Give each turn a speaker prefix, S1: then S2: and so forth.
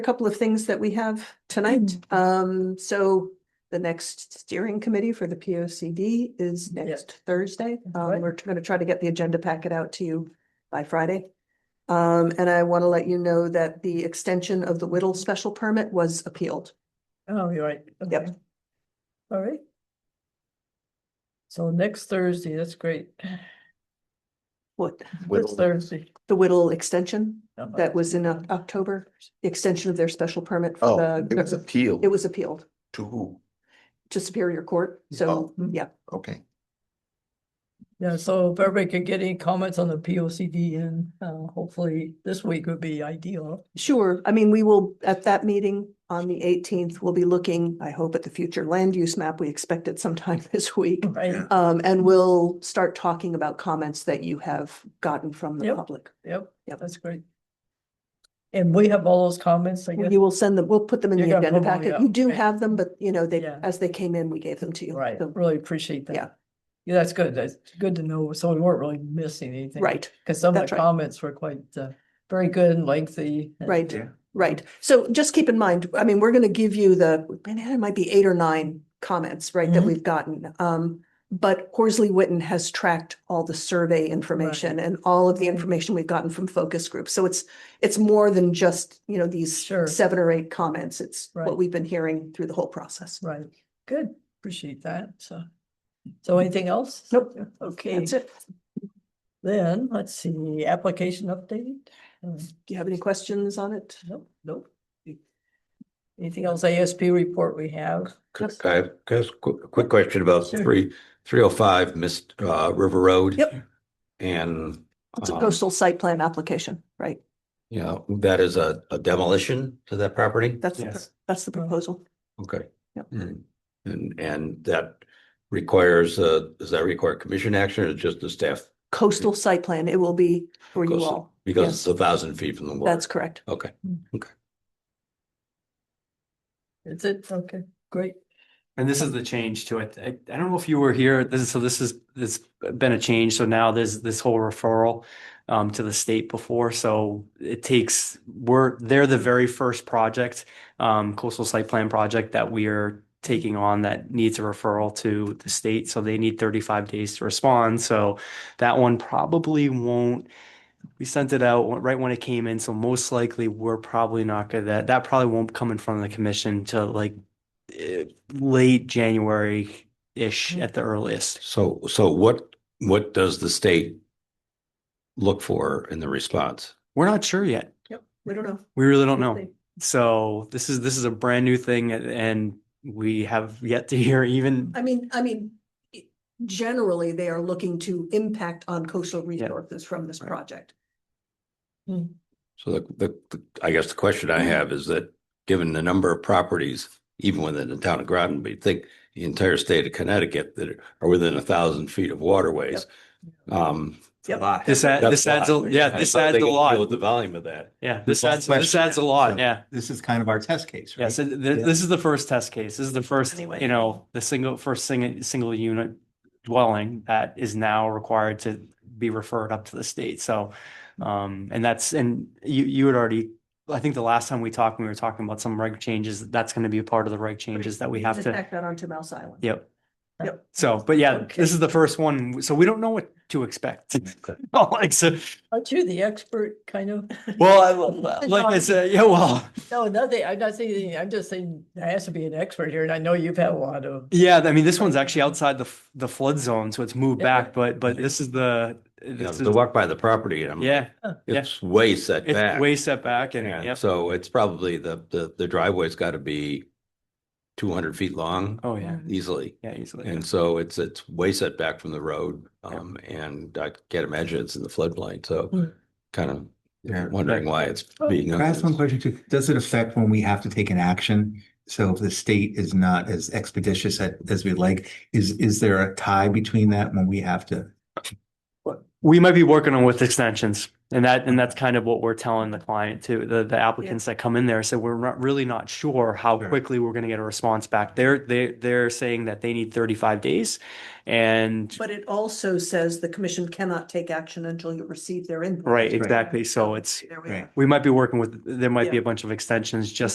S1: a couple of things that we have tonight. Um, so the next steering committee for the P O C D is
S2: Yeah.
S1: next Thursday. Um,
S2: right.
S1: we're gonna try to get the agenda packet out to you by Friday. Um, and I want to let you know that the extension of the Whittle special permit was appealed.
S2: Oh, you're right.
S1: Yep.
S2: okay. All right. So next Thursday, that's great.
S1: What,
S2: Next Thursday.
S1: the Whittle extension
S2: Uh-huh.
S1: that was in Oc- October, the extension of their special permit
S3: Oh,
S1: for
S3: it was
S1: the,
S3: appealed
S1: it was appealed
S3: to who?
S1: to Superior Court. So,
S2: Oh.
S1: yeah,
S3: Okay,
S2: Yeah, so if everybody could get any comments on the P O C D and uh hopefully this week would be ideal.
S1: Sure. I mean, we will, at that meeting on the eighteenth, we'll be looking, I hope, at the future land use map. We expect it sometime this week.
S2: Right,
S3: Yeah.
S1: Um, and we'll start talking about comments that you have gotten from the
S2: Yep.
S1: public.
S2: yep,
S1: Yep.
S2: that's great. And we have all those comments, I guess.
S1: You will send them, we'll put them in
S2: You're
S1: the
S2: gonna
S1: agenda
S2: put them,
S1: packet.
S2: yeah.
S1: You do
S2: Okay.
S1: have them, but you know, they,
S2: Yeah.
S1: as they came in, we gave them to you.
S2: Right,
S1: So-
S2: really appreciate that.
S1: Yeah.
S2: Yeah, that's good. That's good to know. So we weren't really missing anything.
S1: Right,
S2: Cause some of
S1: That's
S2: the
S1: right.
S2: comments were quite uh very good and lengthy. and-
S1: Right.
S3: Yeah.
S1: right. So just keep in mind, I mean, we're gonna give you the, man, it might be eight or nine comments, right, that
S2: Mhm.
S1: we've gotten. Um, but Horsley Witten has tracked all the survey information and all of the
S2: Right.
S1: information we've gotten from focus groups. So it's, it's more than just, you know, these
S2: Sure.
S1: seven or eight comments. It's what
S2: Right.
S1: we've been hearing through the whole process.
S2: Right, good, appreciate that, so. So anything else?
S1: Nope.
S2: Okay,
S1: That's it.
S2: then, let's see, application update? Uh,
S1: Do you have any questions on it?
S2: Nope, nope. Anything else, ASP report we have?
S4: Could I just quick, quick question about
S2: Sure.
S4: three, three oh five Mist, uh, River Road?
S1: Yep.
S4: And,
S1: It's a
S4: um,
S1: coastal site plan application, right?
S4: you know, that is a a demolition to that property?
S1: That's, the pr-
S3: Yes.
S1: that's the proposal.
S4: Okay.
S1: Yep.
S4: Mm. And, and that requires, uh, does that require commission action or just the staff?
S1: Coastal site plan, it will be for you
S4: Coastal-
S1: all.
S4: Because
S1: Yes.
S4: it's a thousand feet from the water?
S1: That's correct.
S4: Okay,
S2: Is it, okay, great,
S5: And this is the change to it. I, I don't know if you were here. This is, so this is, it's been a change. So now there's this whole referral um, to the state before. So it takes, we're, they're the very first project, um, coastal site plan project that we are taking on that needs a referral to the state. So they need 35 days to respond. So that one probably won't, we sent it out right when it came in. So most likely we're probably not gonna, that, that probably won't come in front of the commission to like eh, late January-ish at the earliest.
S4: so, so what, what does the state look for in the response?
S5: We're not sure yet.
S1: We don't know.
S5: We really don't know.
S1: They-
S5: So this is this is a brand new thing and- and we have yet to hear even
S1: I mean, I mean, i- generally, they are looking to impact on coastal resources from this
S5: Right.
S1: project.
S4: So the, the, the- I guess the question I have is that, given the number of properties, even within the town of Groton, but you think the entire state of Connecticut that are within a thousand feet of waterways. Um.
S1: Yep.
S5: this add,
S4: that's
S5: this adds a
S4: lot.
S5: yeah,
S4: I
S5: this
S4: thought
S5: adds
S4: they
S5: a
S4: could deal With
S5: lot.
S4: the volume of that.
S5: Yeah, this
S3: the
S5: adds this
S3: question.
S5: adds a lot.
S3: So-
S5: Yeah.
S3: this is kind of our test case,
S5: Yeah,
S3: right?
S5: so th-
S3: Yeah.
S5: this is the first test case. This is the first,
S1: Anyway.
S5: you know, the single first single single unit dwelling that is now required to be referred up to the state. So, um, and that's and you you had already, I think the last time we talked, we were talking about some reg changes. That's going to be a part of the reg changes that we have
S1: Just
S5: to.
S1: Tack that onto Mouse Island.
S5: Yep.
S1: Yep.
S5: So, but yeah,
S2: Okay.
S5: this is the first one, so we don't know what to expect. Like so,
S2: aren't you the expert, kind of?
S5: well, I- like I said, yeah, well.
S2: No, nothing, I'm not saying, anything, I'm just saying, I has to be an expert here, and I know you've had a lot of.
S5: Yeah, I mean, this one's actually outside the f- the flood zone, so it's moved
S2: Yeah.
S5: back. But but this is the
S4: You know,
S5: this
S4: to
S5: is,
S4: walk by the property and I'm.
S5: yeah, yeah.
S4: It's way set
S5: it's
S4: back.
S5: way set back, and
S4: And
S5: yep.
S4: so it's probably the, the, the driveway's gotta be two hundred feet long
S5: oh yeah,
S2: Mm-hmm.
S4: easily.
S5: yeah, easily.
S4: And so it's, it's way set back from the road,
S5: Yeah.
S4: um, and I can't imagine it's in the floodplain, so
S2: Mm.
S4: kind of
S3: Yeah.
S4: wondering why it's being.
S3: Can I ask one
S4: unused.
S3: question too? Does it affect when we have to take an action? So if the state is not as expeditious at- as we'd like, is, is there a tie between that when we have to?
S5: We might be working on with extensions and that, and that's kind of what we're telling the client too, the, the applicants that come in there. So we're not really not sure how
S3: Sure.
S5: quickly we're going to get a response back. They're, they, they're saying that they need thirty-five days and,
S1: But it also says the commission cannot take action until you receive their input.
S5: right, exactly. So it's,
S1: There we
S3: Right.
S1: are.
S5: we might be working with, there might be
S1: Yeah.
S5: a bunch of extensions just